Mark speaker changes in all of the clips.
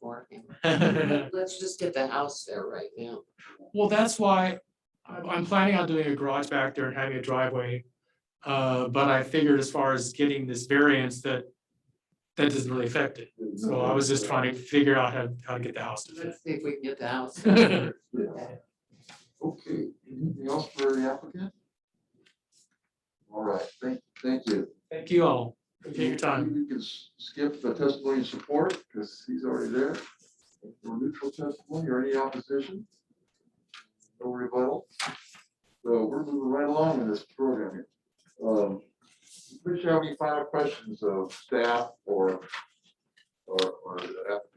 Speaker 1: Let's just get the house there right now.
Speaker 2: Well, that's why I'm, I'm planning on doing a garage back there and having a driveway. Uh, but I figured as far as getting this variance that, that doesn't really affect it. So I was just trying to figure out how, how to get the house to fit.
Speaker 1: Let's see if we can get the house. there.
Speaker 3: Okay, anything else for the applicant? All right, thank, thank you.
Speaker 2: Thank you all. Appreciate your time.
Speaker 3: You can s- skip the testimony and support, because he's already there. No neutral testimony or any opposition. No rebuttal. So we're moving right along in this program here. Um, Does you have any final questions of staff or, or, or the applicant?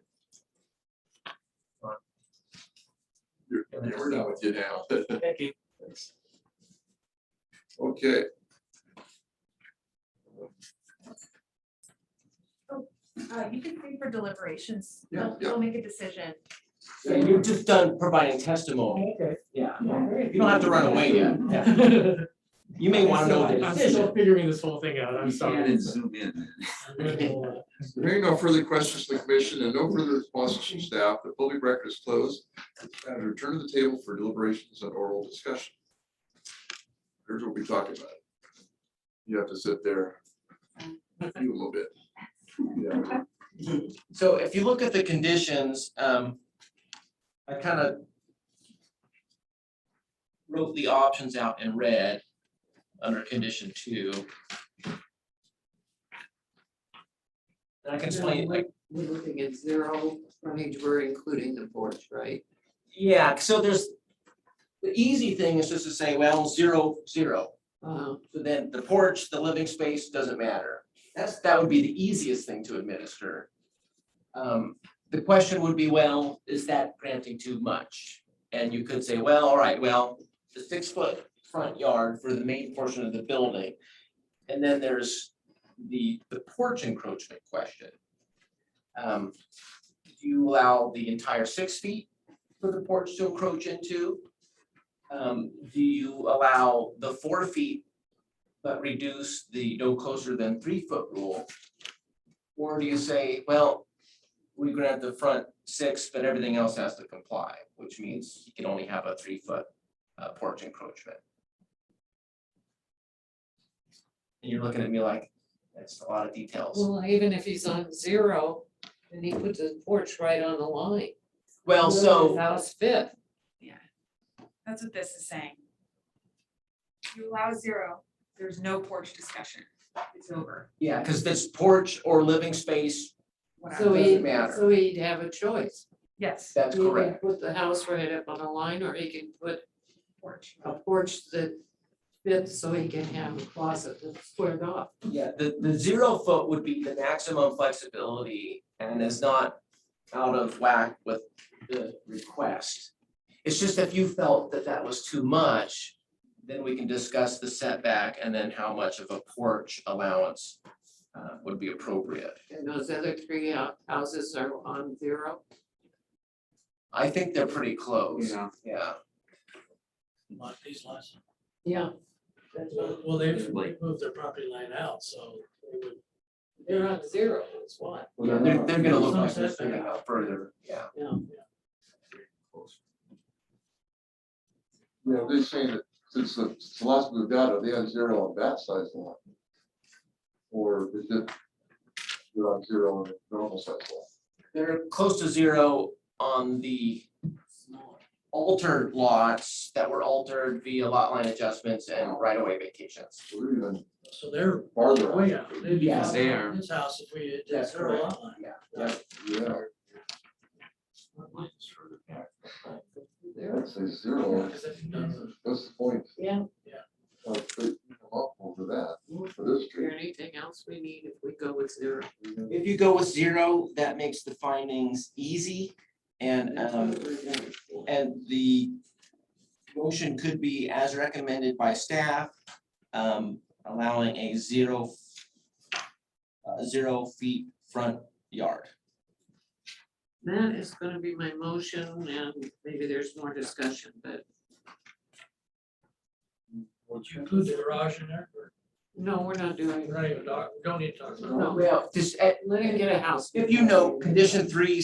Speaker 3: You're- yeah, We're done with you now.
Speaker 2: Thank you.
Speaker 3: Thanks. Okay.
Speaker 4: Uh, you can stay for deliberations.
Speaker 3: Yeah,
Speaker 4: They'll,
Speaker 3: yeah.
Speaker 4: they'll make a decision.
Speaker 5: Yeah, you're just done providing testimony. Okay. Yeah, you don't have to run away yet. You may want to know the
Speaker 2: I'm still
Speaker 5: decision.
Speaker 2: figuring this whole thing out. I'm sorry.
Speaker 6: zoom in.
Speaker 3: Hearing no further questions from the commission and no further responses from staff, the public record is closed. And return to the table for deliberations and oral discussion. Here's what we talked about. You have to sit there. You a little bit. Yeah.
Speaker 5: So if you look at the conditions, um, I kind of wrote the options out in red under condition two. And I can explain, like,
Speaker 1: We're looking at zero frontage, we're including the porch, right?
Speaker 5: yeah, so there's, the easy thing is just to say, well, zero, zero.
Speaker 1: Uh,
Speaker 5: So then the porch, the living space doesn't matter. That's, that would be the easiest thing to administer. Um, the question would be, well, is that granting too much? And you could say, well, all right, well, the six foot front yard for the main portion of the building. And then there's the, the porch encroachment question. Um, do you allow the entire six feet for the porch to encroach into? Um, do you allow the four feet but reduce the no closer than three foot rule? Or do you say, well, we grant the front six, but everything else has to comply, which means you can only have a three foot uh, porch encroachment? And you're looking at me like, that's a lot of details.
Speaker 1: Well, even if he's on zero, then he puts his porch right on the line.
Speaker 5: Well, so.
Speaker 1: His House fit.
Speaker 4: That's what this is saying. You allow zero, there's no porch discussion. It's over.
Speaker 5: Yeah, because this porch or living space,
Speaker 1: So
Speaker 5: Doesn't
Speaker 1: he,
Speaker 5: matter.
Speaker 1: so he'd have a choice.
Speaker 4: Yes,
Speaker 5: that's
Speaker 1: He can
Speaker 5: correct.
Speaker 1: Put the house right up on the line, or he can put
Speaker 4: porch.
Speaker 1: a porch that fits so he can have a closet that's squared off.
Speaker 5: Yeah, the, the zero foot would be the maximum flexibility and is not out of whack with the request. It's just if you felt that that was too much, then we can discuss the setback and then how much of a porch allowance uh, would be appropriate.
Speaker 1: And those other three hou- houses are on zero.
Speaker 5: I think they're pretty close,
Speaker 3: Yeah.
Speaker 5: yeah.
Speaker 7: lot, these lots.
Speaker 1: Yeah.
Speaker 7: Well, they they moved their property line out, so they would
Speaker 1: They're on zero, that's why.
Speaker 5: They're, they're gonna look like this,
Speaker 7: Sunset.
Speaker 5: they're gonna go further, yeah.
Speaker 1: Yeah.
Speaker 3: Yeah, they're saying that since the since the last moved out, are they on zero on that size lot? Or is it they're on zero on the normal size lot?
Speaker 5: They're close to zero on the altered lots that were altered via lot line adjustments and right away vacations.
Speaker 3: So We're even
Speaker 7: So they're
Speaker 3: farther out.
Speaker 7: way out. They'd be
Speaker 5: Yeah,
Speaker 7: out
Speaker 6: they
Speaker 7: of
Speaker 6: are.
Speaker 7: This house, if we did
Speaker 5: That's
Speaker 7: zero lot line.
Speaker 5: Yeah.
Speaker 3: Yeah,
Speaker 1: Zero.
Speaker 3: I'd say zero.
Speaker 7: Because if you don't-
Speaker 3: That's the point.
Speaker 1: Yeah.
Speaker 7: Yeah.
Speaker 3: Uh, they come up Over that,
Speaker 1: Is
Speaker 3: for this
Speaker 1: there
Speaker 3: street.
Speaker 1: anything else we need if we go with zero?
Speaker 5: If you go with zero, that makes the findings easy and um and the motion could be as recommended by staff, um allowing a zero uh, zero feet front yard.
Speaker 1: That is gonna be my motion and maybe there's more discussion, but
Speaker 7: Would you include the garage in there? or-
Speaker 1: no, we're not doing.
Speaker 7: We're not even talk, we don't need to talk about it.
Speaker 1: No.
Speaker 5: Well, just uh,
Speaker 1: Let him get a house.
Speaker 5: if you know, condition three